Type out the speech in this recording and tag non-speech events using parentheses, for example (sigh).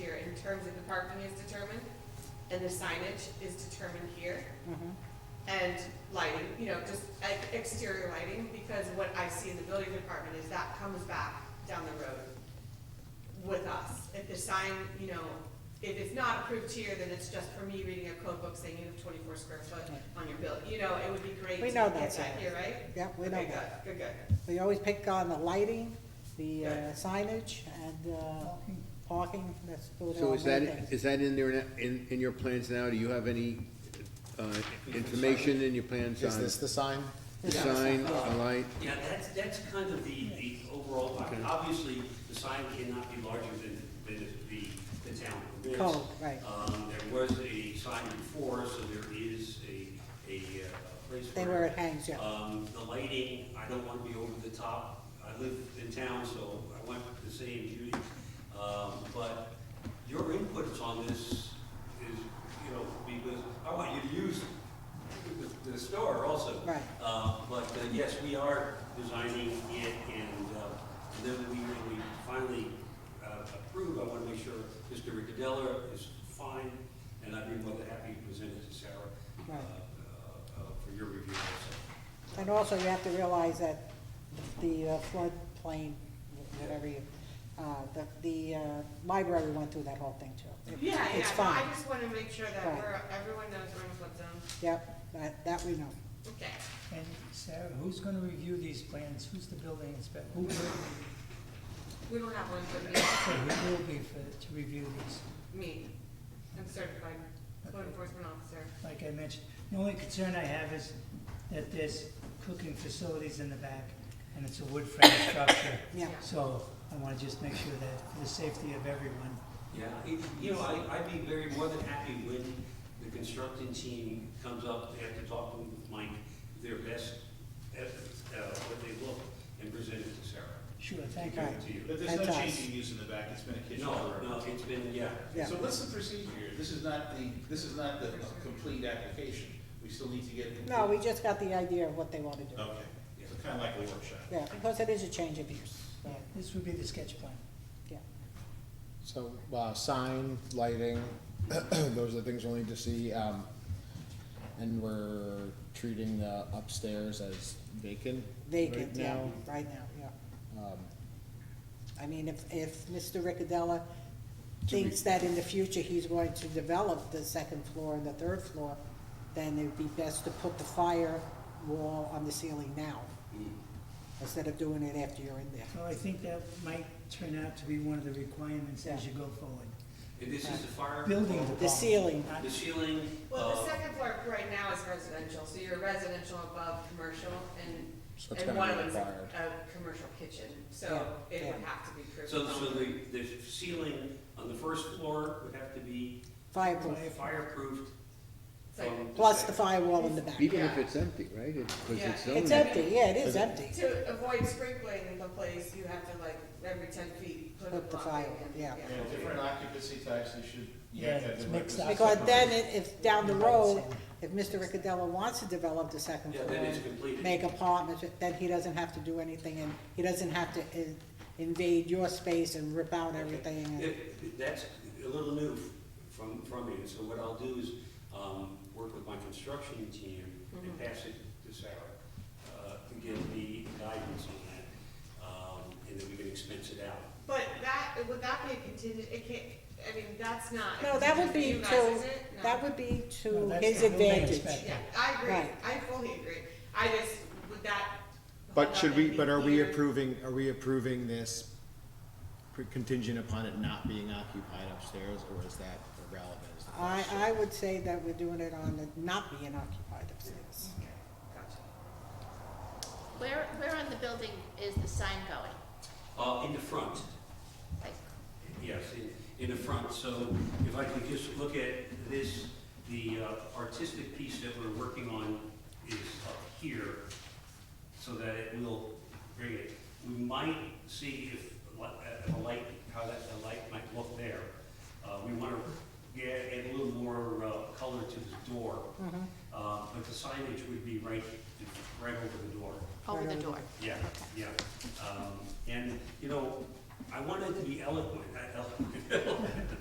in terms of the parking is determined, and the signage is determined here. Mm-hmm. And lighting, you know, just like, exterior lighting, because what I see in the building department is that comes back down the road with us. If the sign, you know, if it's not approved here, then it's just for me reading a code book saying you have twenty-four square foot on your bill. You know, it would be great We to know get that's that it. here, right? Yeah, we know Okay, that. Good, good, good. We always pick on the lighting, the uh, Yeah. signage, and uh, parking, that's those are So our is that, main things. is that in there, na- in, in your plans now? Do you have any uh, information in your plans Is on this the sign? the sign, a light? Yeah, that's, that's kind of the, the overall, I mean, obviously, the sign cannot be larger than, than the, the town permits. Code, right. Um, there was a sign before, so there is a, a uh, place They where. where it hangs, Uh. yeah. Um, the lighting, I don't want to be over the top. I live in town, so I went the same Judy. Um, but your inputs on this is, you know, because I want you to use the, the store also. Right. Uh, but uh, yes, we are designing it and, uh, and then we, when we finally, uh, approve, I want to make sure Mr. Ricadella is fine. And I'd be more than happy to present it to Sarah, uh, Right. uh, uh, for your review also. And also, you have to realize that the uh, floodplain, whatever you, uh, the, the uh, library went through that whole thing too. It- Yeah, yeah, It's no, fine, I just wanna make sure that Right. we're, everyone knows we're in a flood zone. yep, that, that we know. Okay, And Sarah, who's gonna review these plans? Who's the building inspector? Who will, we don't have one for me, who will be for, to review these? me, I'm certified code enforcement officer. Like I mentioned, the only concern I have is that there's cooking facilities in the back, and it's a wood frame structure. Yeah. So I wanna just make sure that, for the safety of everyone, Yeah, it- you know, I, I'd be very, more than happy when the construction team comes up, they have to talk with Mike, their best, uh, uh, what they look, and present it to Sarah. sure, thank you. Right. To you. But there's no That's us. changing use in the back, it's been a kitchen No, forever. no, it's been, yeah, Yeah. So what's the procedure here? This is not the, this is not the complete application, we still need to get. No, we just got the idea of what they want to do. Oh. Okay, so kind of like a workshop. Yeah, because it is a change of use, so, Yeah, This would be the sketch plan. yeah. So, uh, sign, lighting, (clears throat) those are the things we'll need to see, um, and we're treating the upstairs as vacant Vacant, right yeah, now. right now, yeah. Um, I mean, if, if Mr. Riccadella Do we- thinks that in the future he's going to develop the second floor and the third floor, then it'd be best to put the fire wall on the ceiling now, instead of doing it after you're in there. So I think that might turn out to be one of the requirements as you go forward. and this is the fire. uh, Building The ceiling, Not- The ceiling, Well, the uh, second floor right now is residential, so you're residential above commercial So it's and, and gonna one be of them's a, required. a commercial kitchen, so Yeah, it would yeah. have to be approved. so, so the, the ceiling on the first floor would have to be fireproof, fireproofed. So- from plus the second- firewall in the back. Even if Yeah. it's empty, right? Because Yeah. it's It's zoned. empty, yeah, it is empty, To avoid sprinkling the place, you have to like, every ten feet, put a Put the block fire, in, yeah. Yeah, different occupancy types, they should. you Yeah, have to have it's different- mixed up. because then it- if, down the road, if Mr. Riccadella wants to develop the second Yeah, floor. then it's completed. Make apartments, then he doesn't have to do anything, and he doesn't have to in- invade your space and rip out everything. and- It- That's a little new from, from me, and so what I'll do is, um, work with my construction team and pass it to Sarah, uh, to give me guidance on that, um, and then we can expense it out. But that, would that be a contingent, it can't, I mean, that's not. No, that would be You guys, to, is it? No. that would be No, to that's his the building advantage. inspector. Yeah, I agree, Right. I fully agree, I just, would that. But should we, but are we approved? approving, are we approving this pre- contingent upon it not being occupied upstairs, or is that irrelevant? is the I, question? I would say that we're doing it on the not being occupied upstairs. Gotcha. Where, where on the building is the sign going? Uh, in the front, Like, yes, in, in the front, so if I could just look at this, the uh, artistic piece that we're working on is up here, so that it will bring it. We might see if, li- uh, if a light, how that, the light might look there. Uh, we wanna get, add a little more, uh, color to the door. Uh, but the signage would be right, right over the door. over the door? Yeah, yeah. Um, and, you know, I wanted to be eloquent, (laughs) uh, eloquent,